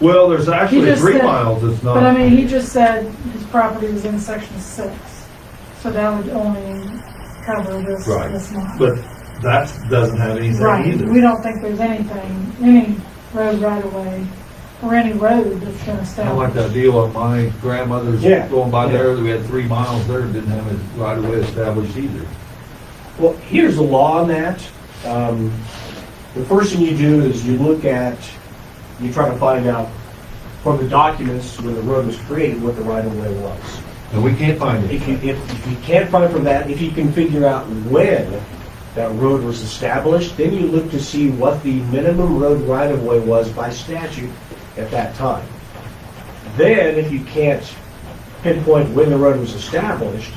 Well, there's actually just three said- miles, it's not. But I mean, Um, he just said his property was in section six, so that would only cover this, Right. this lot. But that doesn't have anything Right, we either. don't think there's anything, any road right of way, or any road that's gonna I like stop. that deal of my grandmother's Yeah. going by there, we had three miles there, didn't have it right away established either. Well, here's the law on that. Um, The first thing you do is you look at, you try to find out from the documents when the road was created, what the right-of-way was. And we can't find If you, it. if if you can't find from that, if you can figure out when that road was established, then you look to see what the minimum road right-of-way was by statute at that time. Then, if you can't pinpoint when the road was established,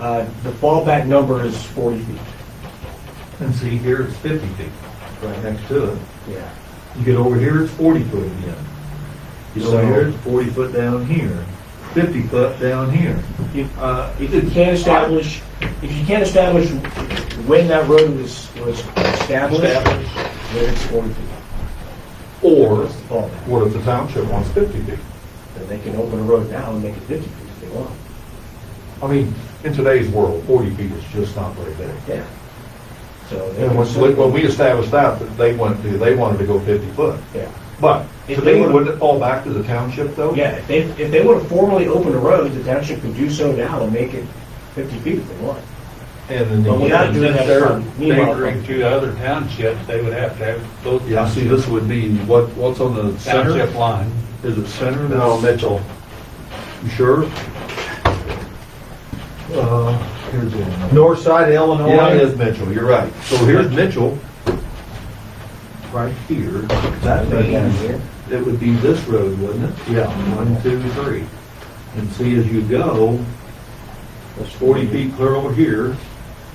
uh, the fallback number is 40 feet. And see, here it's fifty feet, right next to it. Yeah. You get over here, it's forty foot again. You get So- over here, it's forty foot down here, fifty foot down here. If, Uh, if you can't establish, if you can't establish when that road was, was established, then established. it's 40 feet. Or, That's the fallback. what if the township wants fifty feet? Then they can open a road now and make it 50 feet if they want. I mean, in today's world, forty feet is just not very big. Yeah. So. they And can when, certainly- when we established that, that they wanted to, they wanted to go fifty foot. Yeah. But If today, they were- wouldn't it fall back to the township though? Yeah, if they, if they want to formally open a road, the township could do so now and make it 50 feet if they want. And then. But without doing that, They're meanwhile- neighboring to other townships, they would have to have those. Yeah, see, this would be, what, what's on the center? Township line. Is it center? No, Mitchell. You sure? Uh, here's Illinois. North side of Illinois. Yeah, it is Mitchell, you're right. So here's Mitchell, right here. That means it would be this road, wouldn't it? Yeah, one, two, three. And see, as you go, it's 40 feet clear over here,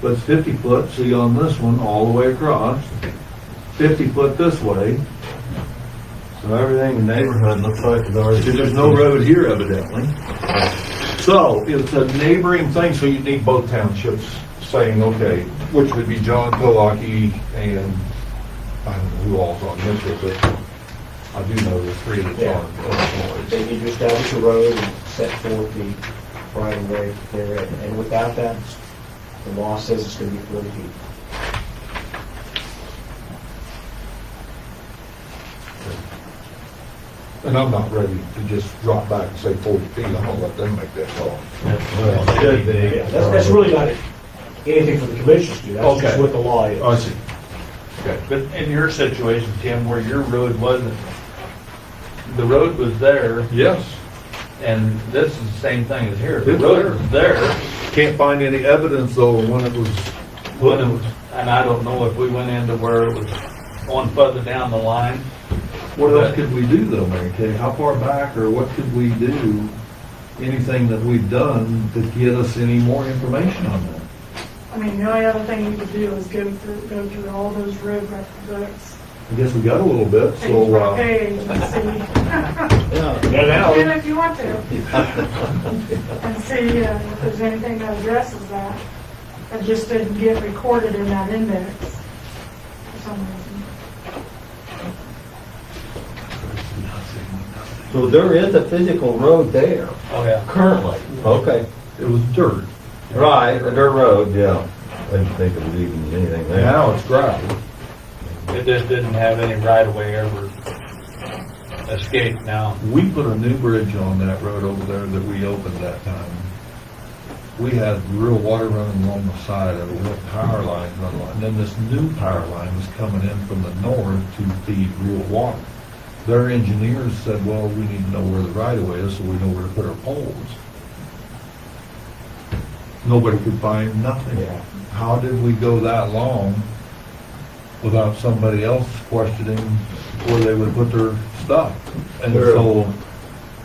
but it's 50 foot, see on this one, all the way across, 50 foot this way. So everything in the neighborhood looks like it's already, there's no road here evidently. So it's a neighboring thing, so you need both townships saying, okay, which would be John Colaki and, I don't know who all's on Mitchell, but I do know the three that's on Illinois. They need to establish a road and set forth the right of way therein. And without that, the law says it's going to be 40 feet. And I'm not ready to just drop back and say 40 feet, I'm gonna let them make that call. Should be. Yeah, That's, that's really not anything for the commissioners to do, that's just Okay. what the law is. I see. But in your situation, Tim, where your road wasn't, the road was there, Yes, and this is the same thing as here. The It's road was there, can't find any evidence though of when it was, when it was- and I don't know if we went into where it was on further down the line. what else could we do though, Mary Kay? How far back or what could we do? Anything that we've done to get us any more information on that? I mean, the only other thing you could do is go through, go through all those road record books, I guess we got a little bit, page so, by uh, page, and see, Yeah, now, and if you want to. And see uh, if there's anything that addresses that, that just didn't get recorded in that index for some reason. So there is a physical road there Oh, yeah. currently. Okay. it was dirt. Right, a dirt road, yeah. I didn't think it was even anything And there. Now it's gravel. It just didn't have any right of way ever escaped now. We put a new bridge on that road over there that we opened that time. We had real water running along the side of it, we had power lines running along, and then this new power line was coming in from the north to feed real water. Their engineers said, well, we need to know where the right of way is, so we know where to put our poles. Nobody could find nothing. Yeah. How did we go that long without somebody else questioning where they would put their stuff? And Sure. so,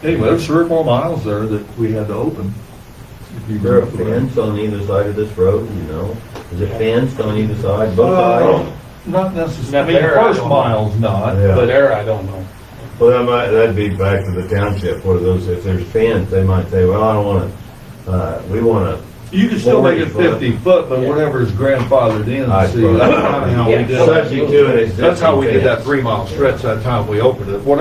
anyway, there's three or four miles there that we had to open. If you There are remember that. fence on either side of this road, you know? Is it fenced on either side, both Uh, sides? Not Not necessarily, I mean, the there, I first don't know. mile's not, Yeah. But but there, I don't know. Well, that might, that'd be back to the township, where those, if there's fence, they might say, well, I don't wanna, uh, we wanna, you can still make it 40 foot. fifty foot, but whatever's grandfathered I in, see, suppose. that's kinda how we subject did it. to an existing That's how we did fence. that three mile stretch that time we opened it, What